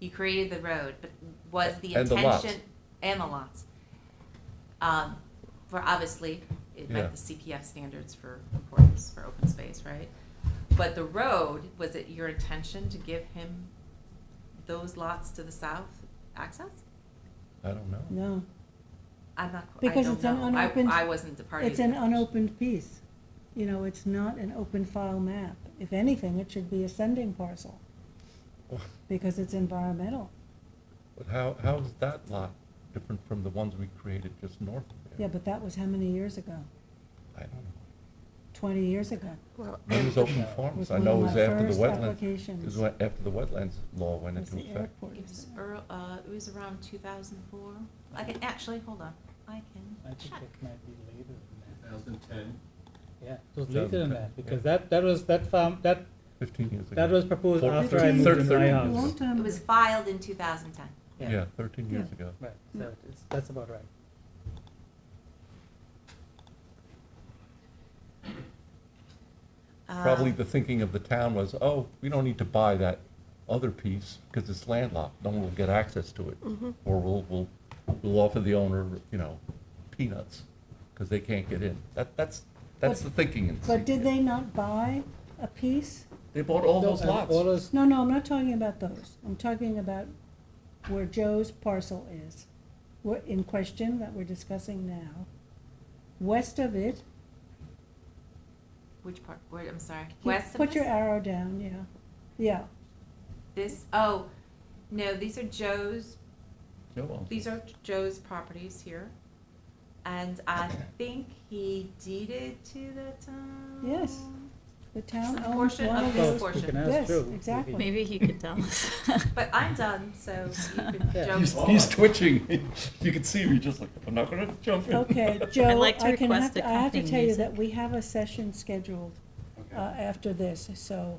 You created the road, but was the And the lots. intention, and the lots. Um, for obviously, it Yeah. met the CPF standards for importance for open space, right? But the road, was it your intention to give him those lots to the south access? I don't know. No, I'm not, qu- I Because don't it's an know. unopened- I, I wasn't the party. it's to an that. unopened piece. You know, it's not an open file map. If anything, it should be a sending parcel because it's environmental. But how, how is that lot different from the ones we created just north of Yeah, there? but that was how many years ago? I don't know. Twenty years ago. Well, It was open farms, Was I one know it of was my after the first wetlands, it applications. was when- after the wetlands law went Was into the effect. airport. It was earl, uh, it was around two thousand four. I can, actually, hold on, I I can think check. it might be later than that. 2010. Yeah, it was Yeah, later than okay, that, because yeah. that, that was, that farm, that, Fifteen years ago. that was proposed Four- after I moved thirteen- into my thirteen A long house. time It ago. was filed in two thousand ten. Yeah, thirteen years ago. Right, Yeah. so it's, that's about right. Probably Uh, the thinking of the town was, oh, we don't need to buy that other piece because it's landlocked. No one will get access to it. Mm-hmm. Or we'll, we'll, we'll offer the owner, you know, peanuts because they can't get in. That, that's, that's the But- thinking. in But did CPF. they not buy a piece? They bought all No, those and All lots. those, No, no, I'm not talking about those. I'm talking about where Joe's parcel is, wha- in question that we're discussing now. West of it, Which part, where, I'm sorry, keep- west of put your this? arrow down, yeah, yeah. This, oh, no, these are Joe's, Joe owns these are Joe's properties here. And I think he deeded to the town. Yes. The town Some owns portion one of of this those. Oh, you portion. can ask Yes, Joe if he- exactly. Maybe he could tell us. But I'm done, so you can Yeah. Joe. He's twitching. You can see me just like, I'm not gonna jump in. Okay, Joe, like to I can have request to, I have to accompanying tell you music. that we have a session scheduled, uh, Okay. after this, so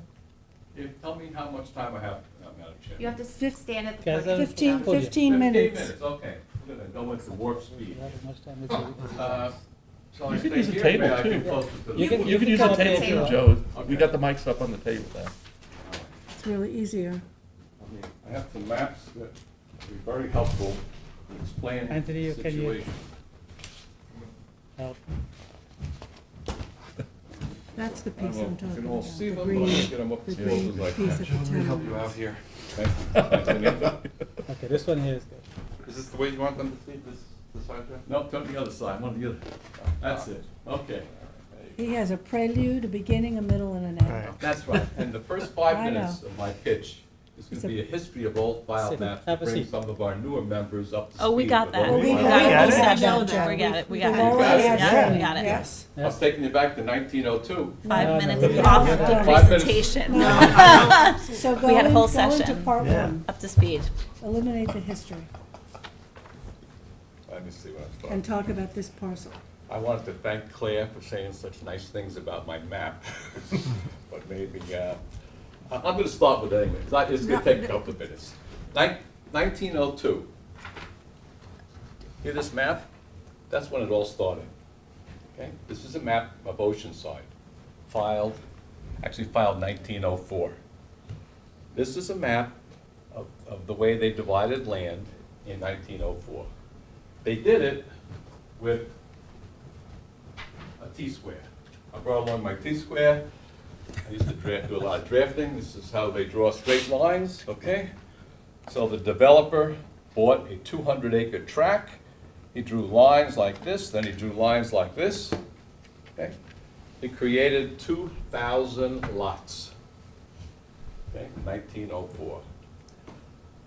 If- Tell me how much time I have, uh, Madam Chair. You have to s- stand at the Kaz, podium. um, fifteen, fifteen Podium. Fifteen minutes. minutes, okay. We're gonna go into warp speed. You have as much time as you- as you Uh, want. Shall I You could stay use a here? table, May I too. get closer to the- You can- You can use come a up with table your too, own. Joe. We Okay. got the mics up on the table now. All right. It's really easier. I mean, I have some maps that would be very helpful to explain the Anthony, can you- situation. Help. That's the I don't piece know I'm if you talking can all about, see the them, but I'll green, get them up the as close as I green piece can. of the Help you town. out here. Thank you. Okay, this one here is good. Is this the way you want them to see this, the side view? Nope, took the other side, one of the other. That's it, okay. He has a prelude, a beginning, a middle, and an end. That's right, and the first I five know. minutes of my pitch is It's gonna be a- a history of old file Sit. maps to Have a bring seat. some of our newer members up to speed. Oh, we got with that. old We file got it. maps. We We got got it. it. We got it. We We've got it. already had Yeah, we seven, got it. yes. uh, I was taking you back to nineteen oh two. No, no, Five minutes we got it. off Yeah. the Five minutes. presentation. So go We had a in, whole go into session. part one, Up to speed. eliminate the history, Let me see what I'm talking. and talk about this parcel. I wanted to thank Claire for saying such nice things about my map, but maybe, uh, I- I'm gonna start with it anyway, 'cause I- it's gonna take a couple of minutes. Nineteen oh two. Hear this map? That's when it all started. Okay, this is a map of Oceanside, filed, actually filed nineteen oh four. This is a map of, of the way they divided land in nineteen oh four. They did it with a T-square. I brought along my T-square. I used to draft, do a lot of drafting. This is how they draw straight lines, okay? So the developer bought a 200-acre tract. He drew lines like this, then he drew lines like this, okay? He created 2,000 lots, okay, 1904.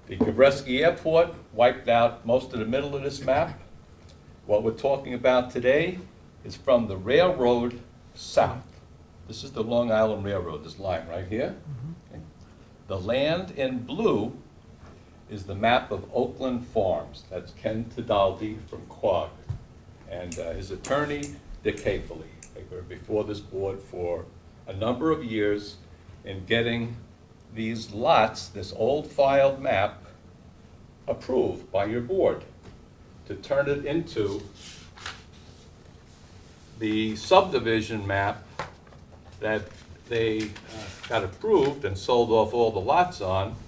The Gabreski Airport wiped out most of the middle of this map. What we're talking about today is from the railroad south. This is the Long Island Railroad, this line right here. Okay. The land in blue is the map of Oakland Farms. That's Ken Tidaldi from Quag and uh, his attorney, Dick Haefely. They were before this board for a number of years in getting these lots, this old filed map, approved by your board to turn it into the subdivision map that they uh, got approved and sold off all the lots on